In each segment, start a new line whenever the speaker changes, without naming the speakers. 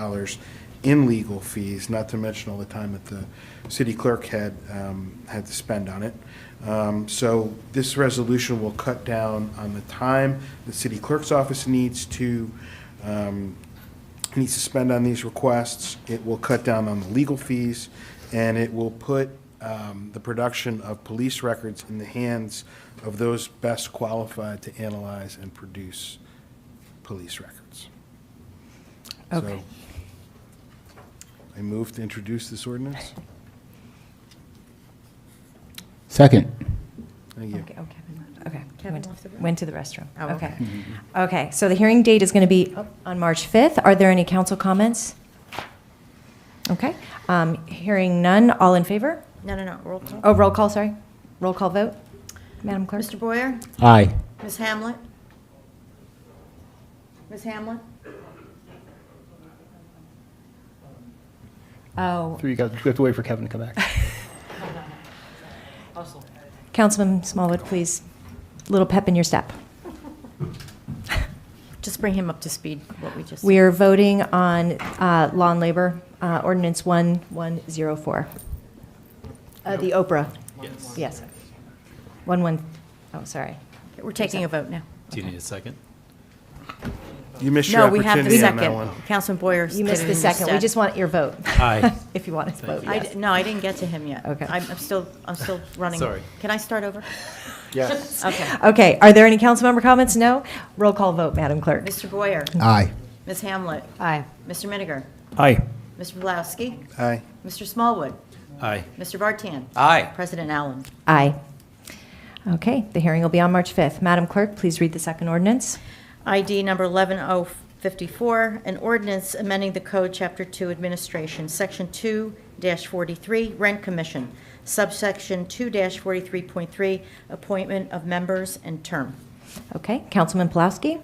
dollars in legal fees, not to mention all the time that the city clerk had, um, had to spend on it. Um, So this resolution will cut down on the time the city clerk's office needs to, um, needs to spend on these requests. It will cut down on the legal fees, and it will put um, the production of police records in the hands of those best qualified to analyze and produce police records. So,
Okay.
I move to introduce this ordinance.
Second.
Thank you.
Okay, oh, Kevin left. Okay.
Kevin
Went-
left the room.
Went to the restroom.
Oh,
Okay. Okay, so the hearing date is going to be up on March 5th. Are there any council comments? Okay, um, hearing none. All in favor?
No, no, no, roll call.
Oh, roll call, sorry. Roll call vote. Madam Clerk?
Mr. Boyer?
Aye.
Ms. Hamlet? Ms. Hamlet?
Oh,
Three, you guys, we have to wait for Kevin to come back.
Councilman Smallwood, please, little pep in your step.
Just bring him up to speed, what we just.
We are voting on uh, law and labor, uh, ordinance 1104. Uh, The Oprah. Yes. Yes. 11, oh, sorry.
We're taking a vote now.
Do you need a second?
You missed your
No, we have the
opportunity on that
second.
one.
Councilman Boyer.
You missed
did
the
it
second. We
instead.
just want your vote.
Aye.
If you want us to vote,
I
yes.
di- No, I didn't get to him yet.
Okay.
I'm I'm still, I'm still running.
Sorry.
Can I start over?
Yes.
Okay.
Okay, are there any council member comments? No? Roll call vote, Madam Clerk.
Mr. Boyer?
Aye.
Ms. Hamlet?
Aye.
Mr. Miniger?
Aye.
Mr. Bilowski?
Aye.
Mr. Smallwood?
Aye.
Mr. Vartan?
Aye.
President Allen?
Aye. Okay, the hearing will be on March 5th. Madam Clerk, please read the second ordinance.
ID number 11054, an ordinance amending the code, Chapter 2, Administration, Section 2-43, Rent Commission, subsection 2-43.3, Appointment of Members and Term.
Okay, Councilman Pulaski?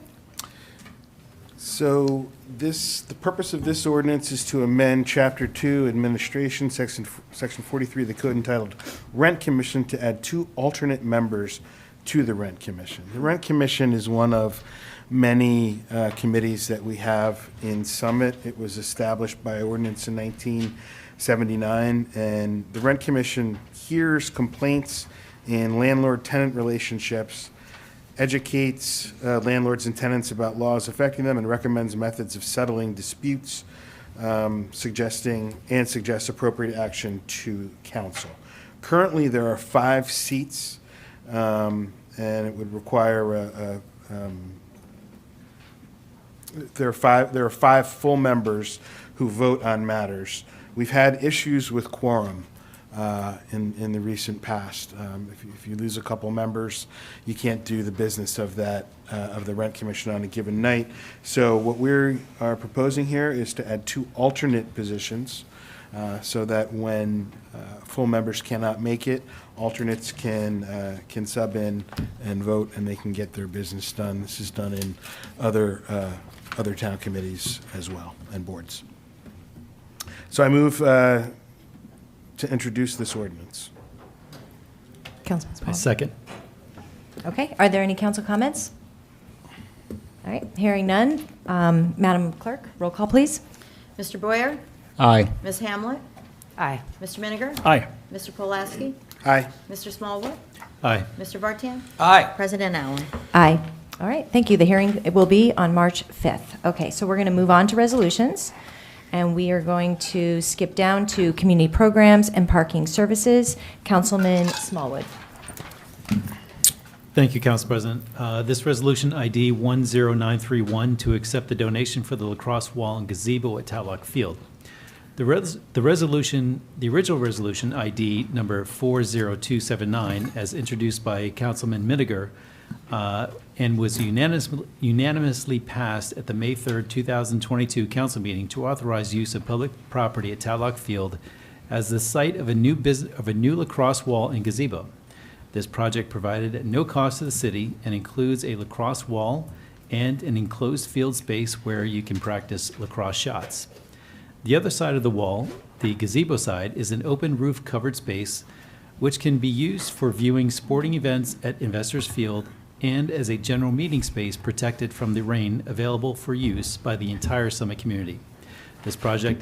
So this, the purpose of this ordinance is to amend Chapter 2 Administration, Section Section 43 of the code entitled Rent Commission to add two alternate members to the Rent Commission. The Rent Commission is one of many uh, committees that we have in Summit. It was established by ordinance in 1979, and the Rent Commission hears complaints in landlord-tenant relationships educates uh, landlords and tenants about laws affecting them and recommends methods of settling disputes, um, suggesting, and suggests appropriate action to council. Currently, there are five seats, um, and it would require a, a, um, there are five, there are five full members who vote on matters. We've had issues with quorum uh, in, in the recent past. Um, If you- if you lose a couple members, you can't do the business of that, uh, of the Rent Commission on a given night. So what we are proposing here is to add two alternate positions uh, so that when uh, full members cannot make it, alternates can, uh, can sub in and vote, and they can get their business done. This is done in other, uh, other town committees as well, and boards. So I move uh, to introduce this ordinance.
Councilman Smallwood?
I second.
Okay, are there any council comments? All right, hearing none. Um, Madam Clerk, roll call, please.
Mr. Boyer?
Aye.
Ms. Hamlet?
Aye.
Mr. Miniger?
Aye.
Mr. Pulaski?
Aye.
Mr. Smallwood?
Aye.
Mr. Vartan?
Aye.
President Allen?
Aye. All right, thank you. The hearing will be on March 5th. Okay, so we're going to move on to resolutions, and we are going to skip down to community programs and parking services. Councilman Smallwood.
Thank you, Council President. Uh, This resolution ID 10931 to accept the donation for the lacrosse wall and gazebo at Tatlock Field. The res, the resolution, the original resolution ID number 40279, as introduced by Councilman Miniger, uh, and was unanimously, unanimously passed at the May 3rd, 2022 council meeting to authorize use of public property at Tatlock Field as the site of a new business, of a new lacrosse wall and gazebo. This project provided at no cost to the city and includes a lacrosse wall and an enclosed field space where you can practice lacrosse shots. The other side of the wall, the gazebo side, is an open roof covered space which can be used for viewing sporting events at Investors Field and as a general meeting space protected from the rain available for use by the entire Summit community. This project